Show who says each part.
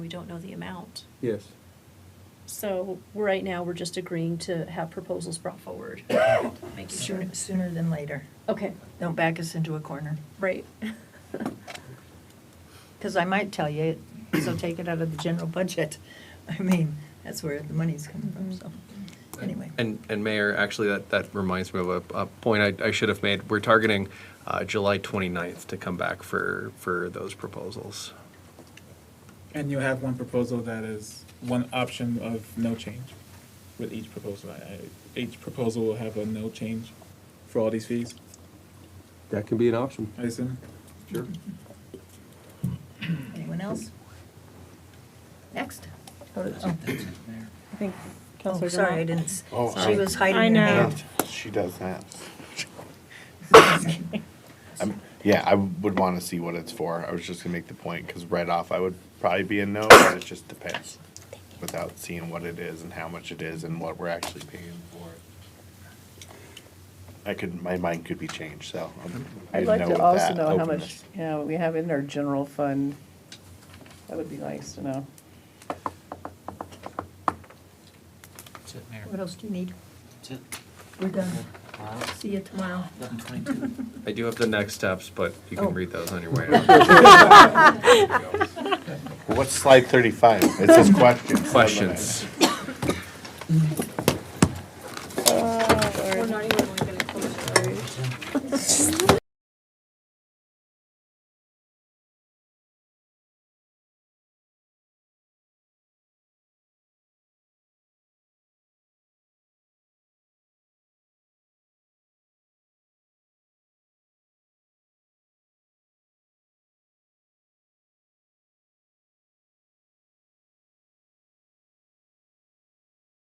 Speaker 1: don't know the amount.
Speaker 2: Yes.
Speaker 1: So right now, we're just agreeing to have proposals brought forward. Making sure,
Speaker 3: Sooner, sooner than later.
Speaker 1: okay,
Speaker 3: Don't back us into a corner.
Speaker 1: right.
Speaker 3: Because I might tell you, so take it out of the general budget. I mean, that's where the money's coming from, so,
Speaker 4: Mm-hmm.
Speaker 3: anyway.
Speaker 5: And, and Mayor, actually, that, that reminds me of a, a point I, I should have made. We're targeting uh, July 29th to come back for, for those proposals.
Speaker 6: And you have one proposal that is one option of no change with each proposal. I- I- Each proposal will have a no change for all these fees,
Speaker 2: That can be an option.
Speaker 6: I assume?
Speaker 2: Sure.
Speaker 3: Anyone else? Next. Go to- oh.
Speaker 7: I think
Speaker 3: Oh,
Speaker 7: Counselor
Speaker 3: sorry, I
Speaker 7: Denal.
Speaker 3: didn't, s-
Speaker 8: Oh,
Speaker 3: she
Speaker 8: sorry.
Speaker 3: was hiding
Speaker 7: I
Speaker 3: her
Speaker 7: know.
Speaker 3: hand.
Speaker 8: She does that. I'm- Yeah, I would want to see what it's for. I was just gonna make the point, because right off, I would probably be a no, but it just depends. Without seeing what it is and how much it is and what we're actually paying for it. I could, my mind could be changed, so. I'm- I
Speaker 7: I'd
Speaker 8: didn't
Speaker 7: like
Speaker 8: know
Speaker 7: to
Speaker 8: with
Speaker 7: also
Speaker 8: that
Speaker 7: know how much,
Speaker 8: openness.
Speaker 7: yeah, we have in our general fund. That would be nice to know.
Speaker 4: That's it, Mayor.
Speaker 3: What else do you need?
Speaker 4: That's it.
Speaker 3: We're done.
Speaker 4: All right.
Speaker 3: See you tomorrow.
Speaker 4: Eleven twenty-two.
Speaker 5: I do have the next steps, but you
Speaker 3: Oh.
Speaker 5: can read those on your way out.
Speaker 8: What's slide thirty-five? It says questions.
Speaker 5: Questions?